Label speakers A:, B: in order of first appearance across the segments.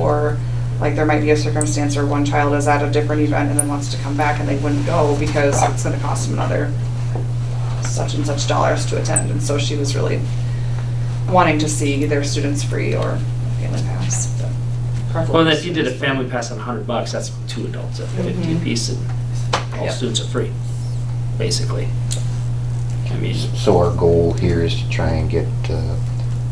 A: or like there might be a circumstance where one child is at a different event and then wants to come back and they wouldn't go because it's gonna cost them another such and such dollars to attend, and so she was really wanting to see their students free or family pass. but preferably
B: Well, and if you did a
A: students free.
B: family pass on hundred bucks, that's two adults at fifty
A: Mhm.
B: apiece, and all
A: Yep.
B: students are free, basically. I mean,
C: So our goal here is to try and get uh,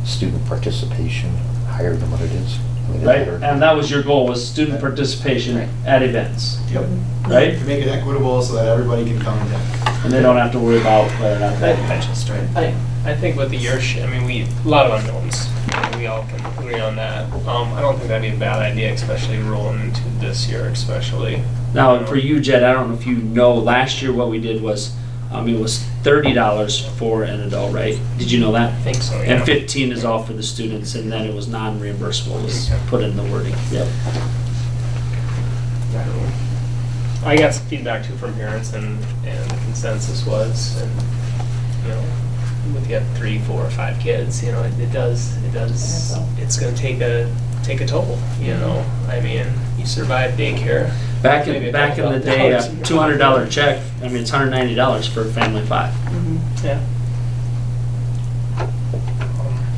C: student participation higher than what it is. I mean,
B: right,
C: it's-
B: and that was your goal, was student participation
A: Right. Mm-hmm.
B: at events,
D: Yep.
B: right?
D: To make it equitable so that everybody can come and attend.
B: And they don't have to worry about whether or not they just right.
E: I, I think with the year sh I mean, we, a lot of unknowns, we all can agree on that. Um, I don't think that'd be a bad idea, especially rolling into this year especially.
B: Now, and for you, Jed, I don't know if you know, last year what we did was, um, it was thirty dollars for an adult, right? Did you know
E: I
B: that?
E: think so, yeah.
B: And fifteen is all for the students, and then it was non-reimbursable, was
E: Okay.
B: put in the wording. Yep.
E: I got some feedback too from parents and, and the consensus was, and, you know, with you have three, four, or five kids, you know, it it does, it does, it's gonna take a, take a toll,
F: Mm-hmm.
E: you know? I mean, you survive daycare.
B: Back
E: maybe
B: in,
E: a
B: back in
E: couple
B: the day, a
E: dollars.
B: two hundred dollar check, I mean, it's hundred ninety dollars for a family of five.
A: Mhm.
E: Yeah.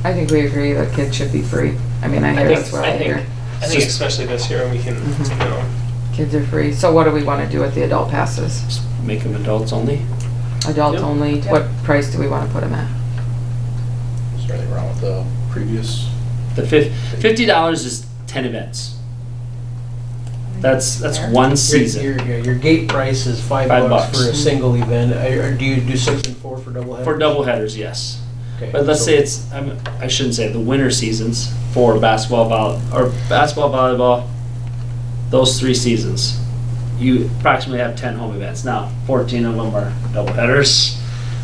G: I think we agree that kids should be free. I mean, I
E: I
G: hear
E: think,
G: that's what
E: I
G: I
E: think,
G: hear.
E: I think especially this year, we can,
G: Mhm.
E: you know,
G: Kids are free. So what do we want to do with the adult passes?
B: Just Make them adults only.
G: Adult
E: Yep.
G: only,
A: Yep.
G: what price do we want to put them at?
H: Is there anything wrong with the previous?
B: The fif- fifty dollars is ten events. That's, that's
A: Fair.
B: one
F: Your-
B: season.
F: Your, your, your gate price is five
B: Five
F: bucks for a
B: bucks.
F: single event, or or do you do six and four for double headers?
B: For double headers, yes.
F: Okay,
B: But let's
F: so-
B: say it's, I'm- I shouldn't say, the winter seasons for basketball, vol, or basketball, volleyball, those three seasons, you approximately have 10 home events. Now, 14 of them are double headers,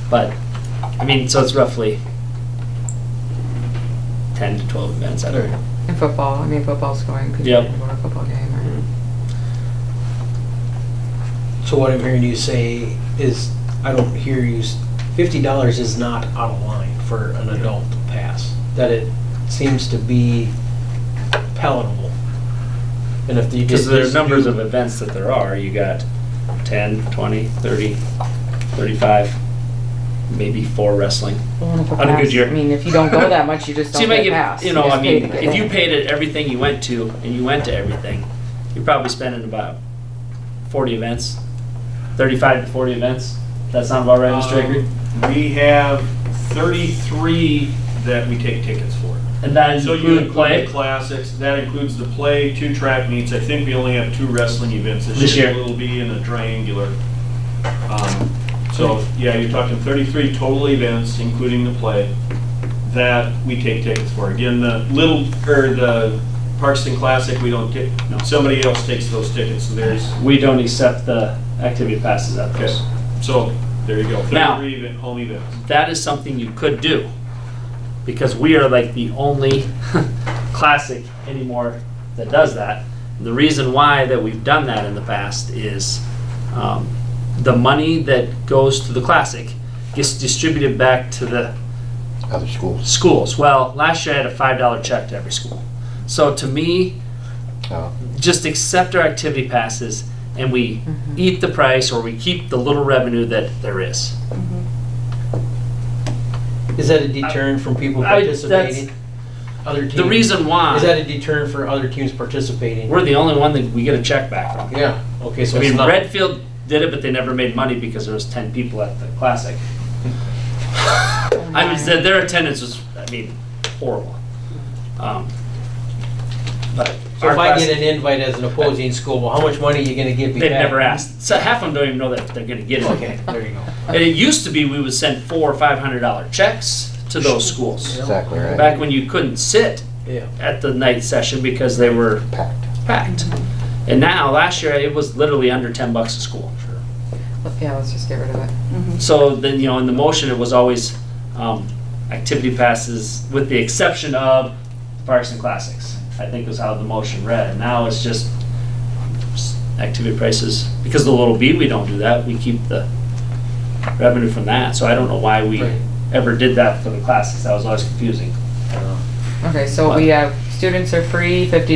B: but, I mean, so it's roughly 10 to 12 events, I don't know.
G: In football, I mean, football's going, people
B: Yep. Mm-hmm.
G: can go to a football game or.
F: So what I'm hearing you say is, I don't hear you, s- fifty dollars is not out of line for an adult pass. That it seems to be palatable. And if you
B: Because
F: just.
B: there's numbers of events that there are, you got 10, 20, 30, 35, maybe four wrestling.
G: Well, and if
B: On a good
G: pass-
B: year.
G: I mean, if you don't go that much, you just
B: So you
G: don't
B: might
G: get a
B: get,
G: pass.
B: you know,
G: just
B: I
G: pay
B: mean,
G: to get
B: if you
G: in.
B: paid at everything you went to, and you went to everything, you're probably spending about forty events, thirty-five to forty events. That sound about right,
I: Um,
B: Mr. Gregory?
I: We have 33 that we take tickets for.
B: And that
I: So
B: include
I: you include
B: play?
I: the classics, that includes the play, two track meets. I think we only have two wrestling events this year.
B: This year.
I: It'll be in a triangular. Um, So, yeah, you're talking 33 total events, including the play, that we take tickets for. Again, the little, or the Parkston Classic, we don't get,
B: No.
I: somebody else takes those tickets, so there's,
B: We don't accept the activity passes at
I: okay.
B: those.
I: So, there you go.
B: Now-
I: 33 event, home events.
B: That is something you could do, because we are like the only classic anymore that does that. The reason why that we've done that in the past is um, the money that goes to the classic gets distributed back to the
C: Other schools.
B: schools. Well, last year I had a five dollar check to every school. So to me,
C: uh,
B: just accept our activity passes and we
F: Mm-hmm.
B: eat the price or we keep the little revenue that there is.
F: Is that a deterrent from people
B: I- that's-
F: participating? Other teams?
B: The reason why
F: Is that a deterrent for other teams participating?
B: we're the only one that we get a check back from.
F: Yeah, okay, so
B: I
F: it's
B: mean,
F: not.
B: Redfield did it, but they never made money because there was ten people at the classic. I mean, their- their attendance was, I mean, horrible. Um, But
F: So
B: our
F: if I
B: class,
F: get an invite as an opposing school, well, how much money are you gonna give me
B: they've
F: back?
B: never asked. So half of them don't even know that they're gonna get it.
F: Okay, there you go.
B: And it used to be we would send four or five hundred dollar checks to those schools.
C: Exactly right.
B: Back when you couldn't sit
F: Yeah.
B: at the night session because they were
C: Packed.
B: packed. And now, last year, it was literally under ten bucks a school.
G: Yeah, let's just get rid of it.
A: Mm-hmm.
B: So then, you know, in the motion, it was always, um, activity passes with the exception of Parks and Classics. I think was how the motion read. Now it's just s- activity prices, because the little B, we don't do that. We keep the revenue from that. So I don't know why we
F: Right.
B: ever did that for the classics. That was always confusing.
G: Okay, so we have, students are free, fifty